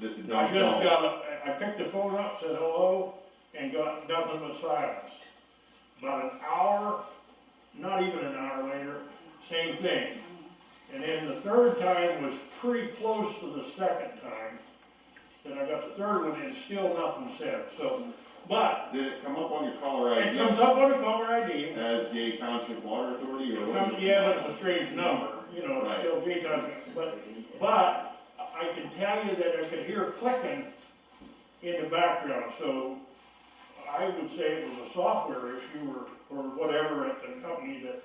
Just a I dumb just dumb. got, a- I picked the phone up, said hello, and got nothing but silence. About an hour, not even an hour later, same thing. And then the third time was pretty close to the second time, that I got the third one, and still nothing said, so, but Did it come up on your caller it ID comes up on the caller ID, as Jay Township Water Authority or it what? comes, yeah, but it's a strange number, you know, it's Right. still J Township, but But I can tell you that I could hear clicking in the background, so I would say it was a software issue or, or whatever at the company that Right.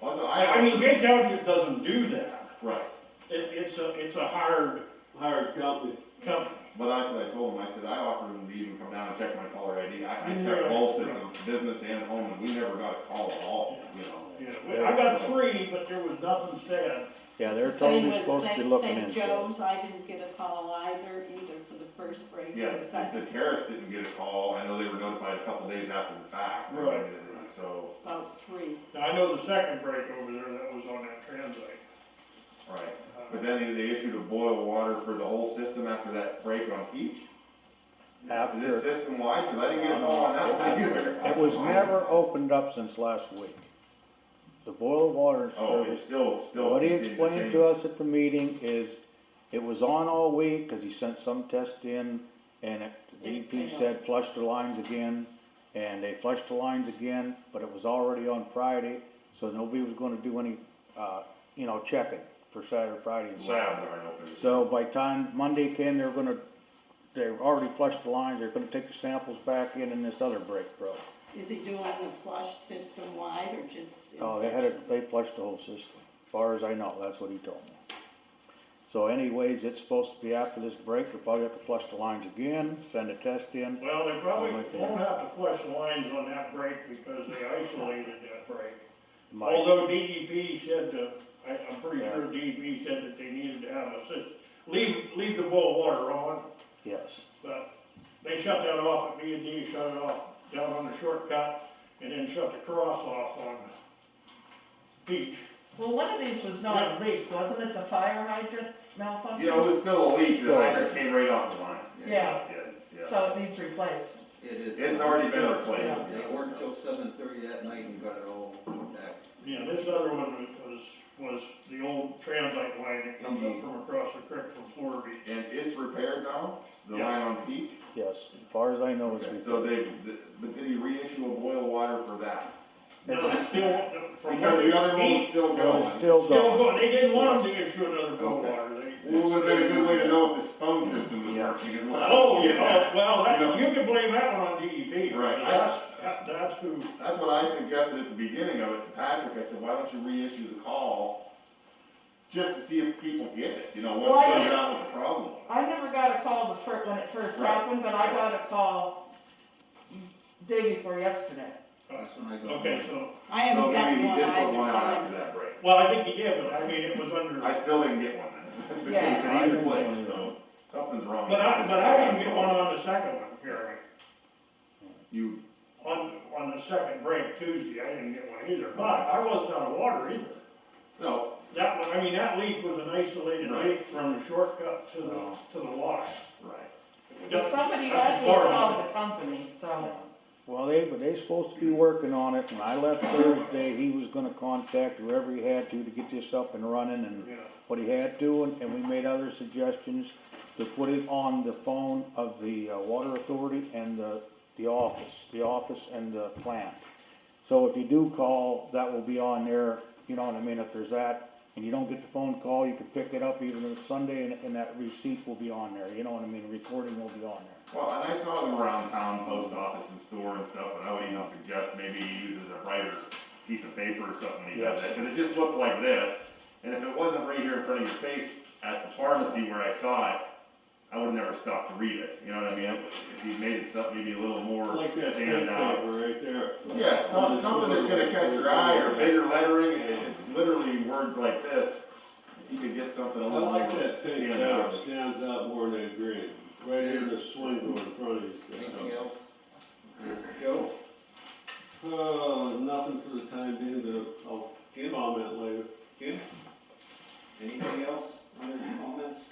they. Also, I, I. I mean, Jay Township doesn't do that. Right, It, it's a, it's a hard hired company. company. but that's what I told him, I said, I offered him to even come down and check my caller ID, I, I checked Right. both of them, business and home, and we never got a call at all, you know? You know, I got three, but there was nothing said. Yeah, they're It's the same totally with supposed to be St. looking St. into it. Joe's, I didn't get a call either, either for the first break Yeah, or the second, the terrorists didn't get a call, I know they were notified a couple days after the fact. I mean, Right. So, about three. Now, I know the second break over there, that was on that translate. right, Uh, but then they issued a boil water for the whole system after that break on each? Is it After, system wide, cause I didn't get a call on that one either. it was never opened up since last week. The boiler water Oh, it's service, still, still. what he continued the explained same. to us at the meeting is, it was on all week, cause he sent some test in, and it, DP It failed. said flush the lines again, and they flushed the lines again, but it was already on Friday, so nobody was gonna do any, uh, you know, checking for Saturday, Friday and Saturday. Labs aren't open. So by time Monday came, they're gonna, they've already flushed the lines, they're gonna take the samples back in and this other break broke. Is he doing the flush system wide or just in Oh, they had, a- sections? they flushed the whole system, far as I know, that's what he told me. So anyways, it's supposed to be after this break, they'll probably have to flush the lines again, send a test in. Well, they probably Something like that. won't have to flush the lines on that break because they isolated that break. My- Although DEP said, uh, I, I'm pretty Yeah. sure DEP said that they needed to have a system, leave, leave the boil water on, Yes, but they shut that off at B and D, E shut it off down on the shortcut, and then shut the cross off on Peach. Well, one of these was not a leak, wasn't it, the fire hydrant malfunction? Yeah, it was still a leak, the hydrant came right off the line. Yeah. Yeah, yeah. So it needs replaced. It is. It's already been replaced. They worked till seven thirty that night and got it all back. Yeah, this other one was, was the old transite line that comes Mm-hmm. up from across the creek from Florida Beach. And it's repaired now, the Yes. line on Peach? yes, far as I know, it's. Okay, So they, th- but did he reissue a boil water for that? No, it's still, from what Because the other one was they, still Well, going. it's still still going, going, they didn't want them to issue another boil Okay. water, they. Well, would have been a good way to know if this phone system was Yeah. working as well. Oh, Yeah. yeah, well, You know. that, you can blame that one on DEP. Right. That's, that- that's who, That's what I suggested at the beginning of it to Patrick, I said, why don't you reissue the call? Just to see if people get it, you know, what's Why? going on with the problem? I never got a call the fir, when it first Right. happened, but I got a call day before yesterday. That's when I got. okay, mine. so, I haven't So maybe gotten he one did put either one out after time. that break. well, I think he did, but I mean, it was under, I still didn't get one then. That's the case Yeah. in either place, so something's wrong. but I, with but this. I didn't get one on the second one, Gary. You, On, on the second break Tuesday, I didn't get one either, but I wasn't out of water either. no, That one, I mean, that leak was an isolated Right. Oh. leak from the shortcut to the, to the wash. right. Just- Somebody that's actually far called the company, so. well, they, but they supposed to be working on it, when I left Thursday, he was gonna contact whoever he had to to get this up and running enough. and Yeah. what he had to, and, and we made other suggestions to put it on the phone of the uh, water authority and the, the office, the office and the plant. So if you do call, that will be on there, you know what I mean, if there's that, and you don't get the phone call, you can pick it up even on Sunday, and, and that receipt will be on there, you know what I mean, recording will be on there. Well, and I saw them around town, post office and store and stuff, and I would even suggest maybe he uses a writer piece of paper or something when he does that, cause it just looked like this. And if it wasn't right here in front of your face at the pharmacy where I saw it, I would never stop to read it, you know what I mean? If he made it something maybe a little more Like that standing out. newspaper right there. Yeah, some, something that's gonna catch your eye or bigger lettering, and it's literally words like this. You could get something a I little. like that pink Yeah. there, it stands out more than green, right here in the swing door in front of you. Anything else? Joe? Uh, nothing for the time being, but I'll Jim? comment later. Jim? Anything else? Other comments?